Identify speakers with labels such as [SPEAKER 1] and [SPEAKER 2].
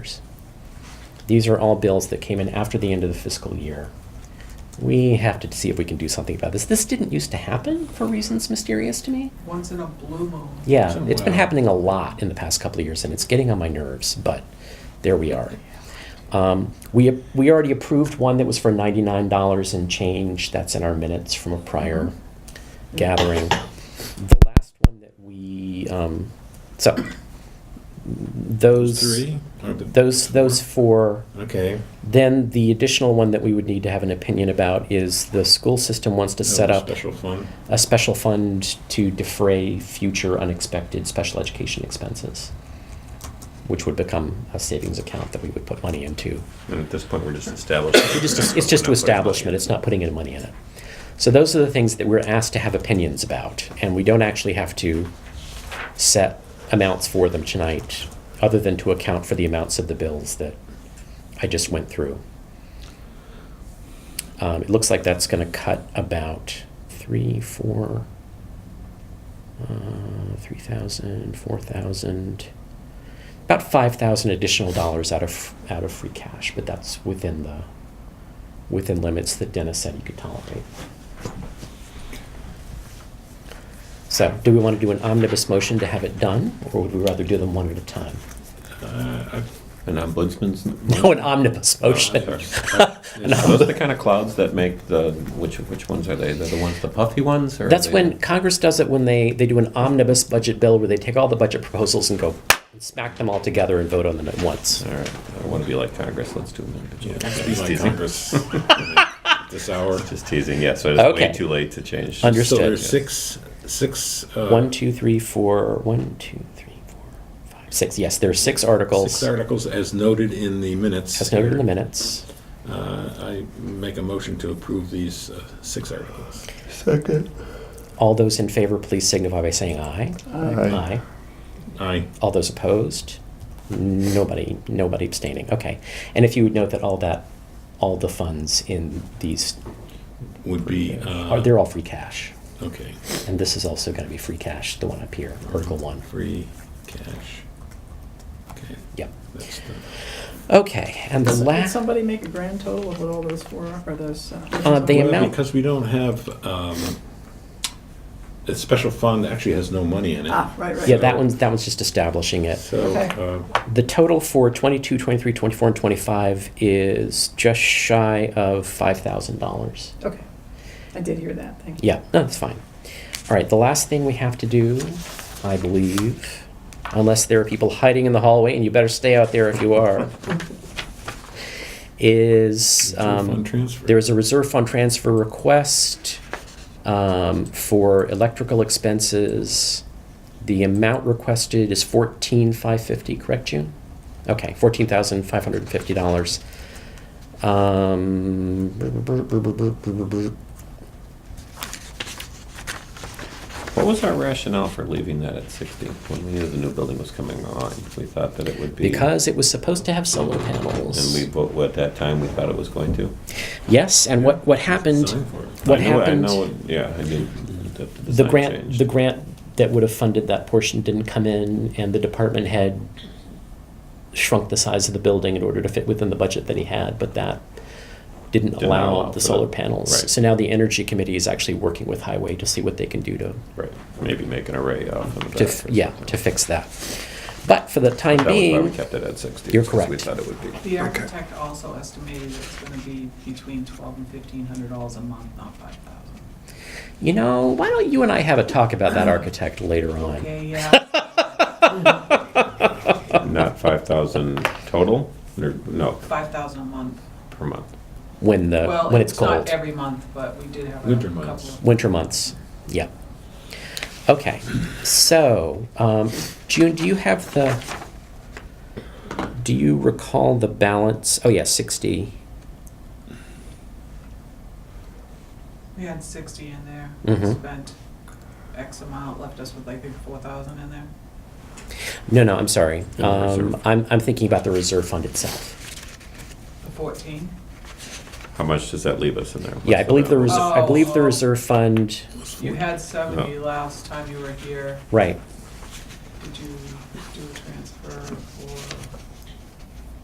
[SPEAKER 1] These are all bills that came in after the end of the fiscal year. We have to see if we can do something about this. This didn't used to happen for reasons mysterious to me.
[SPEAKER 2] Once in a blue moon.
[SPEAKER 1] Yeah, it's been
[SPEAKER 3] Wow.
[SPEAKER 1] happening a lot in the past couple of years, and it's getting on my nerves. But there we are. Um, we we already approved one that was for ninety nine dollars and change. That's in our minutes from a prior gathering. The last one that we um, so those
[SPEAKER 3] Three?
[SPEAKER 1] those those four.
[SPEAKER 3] Okay.
[SPEAKER 1] Then the additional one that we would need to have an opinion about is the school system wants to set
[SPEAKER 3] That was
[SPEAKER 1] up
[SPEAKER 3] Special fund.
[SPEAKER 1] a special fund to defray future unexpected special education expenses, which would become a savings account that we would put money into.
[SPEAKER 4] And at this point, we're just establishing.
[SPEAKER 1] It just- It's just to establishment, it's not putting any money in it. So those are the things that we're asked to have opinions about, and we don't actually have to set amounts for them tonight, other than to account for the amounts of the bills that I just went through. Um, it looks like that's going to cut about three, four, uh, 3,000, 4,000, about 5,000 additional dollars out of out of free cash, but that's within the within limits that Dennis said he could tolerate. So, do we want to do an omnibus motion to have it done, or would we rather do them one at a time?
[SPEAKER 4] An ombudsman's.
[SPEAKER 1] No, an omnibus motion. An
[SPEAKER 4] Are those
[SPEAKER 1] omnibus-
[SPEAKER 4] the kind of clouds that make the, which, which ones are they? They're the ones, the puffy ones? or are
[SPEAKER 1] That's
[SPEAKER 4] they-
[SPEAKER 1] when Congress does it when they, they do an omnibus budget bill where they take all the budget proposals and go and smack them all together and vote on them at once.
[SPEAKER 4] All right, I want to be like Congress, let's do them.
[SPEAKER 3] Yeah,
[SPEAKER 4] individually.
[SPEAKER 3] that'd be
[SPEAKER 4] Just
[SPEAKER 3] like
[SPEAKER 4] teasing.
[SPEAKER 3] Congress this hour.
[SPEAKER 4] Just teasing, yeah, so it's
[SPEAKER 1] Okay.
[SPEAKER 4] way too late to change.
[SPEAKER 1] Under-
[SPEAKER 3] So
[SPEAKER 1] Understood.
[SPEAKER 3] there's six, six. uh,
[SPEAKER 1] One, two, three, four, one, two, three, four, five, six. Yes, there are six articles.
[SPEAKER 3] Six articles as noted in the minutes.
[SPEAKER 1] As noted in the
[SPEAKER 3] here.
[SPEAKER 1] minutes.
[SPEAKER 3] Uh, I make a motion to approve these uh, six articles.
[SPEAKER 5] Second.
[SPEAKER 1] All those in favor, please signify by saying aye.
[SPEAKER 5] Aye.
[SPEAKER 3] Aye.
[SPEAKER 1] All those opposed? Nobody, nobody abstaining. Okay. And if you would note that all that, all the funds in these,
[SPEAKER 3] Would be,
[SPEAKER 1] are
[SPEAKER 3] uh,
[SPEAKER 1] they're all free cash.
[SPEAKER 3] okay,
[SPEAKER 1] And this is also going to be free cash, the one up here, Article 1.
[SPEAKER 3] free cash. Okay,
[SPEAKER 1] Yep.
[SPEAKER 3] that's the.
[SPEAKER 1] Okay. And the
[SPEAKER 2] Did
[SPEAKER 1] last,
[SPEAKER 2] somebody make a grand total of what all those four are, or those?
[SPEAKER 1] Uh, they-
[SPEAKER 3] Well,
[SPEAKER 1] amount-
[SPEAKER 3] Because we don't have, um, the special fund actually has no money in it.
[SPEAKER 2] Ah, right, right.
[SPEAKER 1] yeah, that one's, that one's just establishing it.
[SPEAKER 3] So,
[SPEAKER 2] Okay.
[SPEAKER 3] uh,
[SPEAKER 1] The total for 22, 23, 24, and 25 is just shy of $5,000.
[SPEAKER 2] Okay, I did hear that, thank you.
[SPEAKER 1] Yeah, no, that's fine. All right, the last thing we have to do, I believe, unless there are people hiding in the hallway, and you better stay out there if you are, is
[SPEAKER 3] Reserve
[SPEAKER 1] um,
[SPEAKER 3] fund transfer.
[SPEAKER 1] there is a reserve fund transfer request um, for electrical expenses. The amount requested is fourteen five fifty, correct, June? Okay, fourteen thousand five hundred and fifty dollars. Um,
[SPEAKER 4] What was our rationale for leaving that at 60 when we knew the new building was coming on? We thought that it would be.
[SPEAKER 1] Because it was supposed to have solar
[SPEAKER 4] And
[SPEAKER 1] panels.
[SPEAKER 4] we, vote- at that time, we thought it was going to.
[SPEAKER 1] yes, and what, what happened,
[SPEAKER 3] Sign for it.
[SPEAKER 1] what
[SPEAKER 4] I know-
[SPEAKER 1] happened,
[SPEAKER 4] I know, it- yeah, I mean, the the
[SPEAKER 1] the
[SPEAKER 4] sign
[SPEAKER 1] grant,
[SPEAKER 4] changed.
[SPEAKER 1] the grant that would have funded that portion didn't come in, and the department head shrunk the size of the building in order to fit within the budget that he had, but that didn't,
[SPEAKER 4] Didn't
[SPEAKER 1] allow,
[SPEAKER 4] allow
[SPEAKER 1] the
[SPEAKER 4] for
[SPEAKER 1] solar
[SPEAKER 4] that.
[SPEAKER 1] panels.
[SPEAKER 4] Right.
[SPEAKER 1] So now the energy committee is actually working with highway to see what they can do to,
[SPEAKER 4] Right, maybe make an array off of
[SPEAKER 1] to
[SPEAKER 4] that.
[SPEAKER 1] f-
[SPEAKER 4] or
[SPEAKER 1] yeah,
[SPEAKER 4] something.
[SPEAKER 1] to fix that. But for the time
[SPEAKER 4] That was why we
[SPEAKER 1] being,
[SPEAKER 4] kept it at 60.
[SPEAKER 1] You're
[SPEAKER 4] because We
[SPEAKER 1] correct.
[SPEAKER 4] thought it would be.
[SPEAKER 6] The architect also estimated it's gonna be between twelve and fifteen hundred dollars a month, not five thousand.
[SPEAKER 1] you know, why don't you and I have a talk about that architect later on?
[SPEAKER 6] Uh-huh. Okay, yeah,
[SPEAKER 4] Not 5,000 total, or, no,
[SPEAKER 6] five thousand a month.
[SPEAKER 4] per month.
[SPEAKER 1] Uh, when the
[SPEAKER 6] Well,
[SPEAKER 1] when it's,
[SPEAKER 6] it's
[SPEAKER 1] cold
[SPEAKER 6] not every month, but we did have a
[SPEAKER 3] Winter
[SPEAKER 6] couple
[SPEAKER 3] months.
[SPEAKER 6] of.
[SPEAKER 1] winter months yeah okay so um, june do you have the do you recall the balance oh yeah 60
[SPEAKER 6] We had sixty in there,
[SPEAKER 1] Mhm.
[SPEAKER 6] spent X amount, left us with I think four thousand in there.
[SPEAKER 1] no no i'm sorry
[SPEAKER 3] No,
[SPEAKER 1] um,
[SPEAKER 3] reserve.
[SPEAKER 1] I'm, I'm thinking about the reserve fund itself
[SPEAKER 6] The fourteen,
[SPEAKER 4] How much does that leave us in there?
[SPEAKER 1] yeah i
[SPEAKER 4] What's
[SPEAKER 1] believe the
[SPEAKER 4] balance?
[SPEAKER 1] reserve i believe the
[SPEAKER 6] Oh.
[SPEAKER 1] reserve fund
[SPEAKER 6] you had seventy last time you were here.
[SPEAKER 1] right
[SPEAKER 6] Did you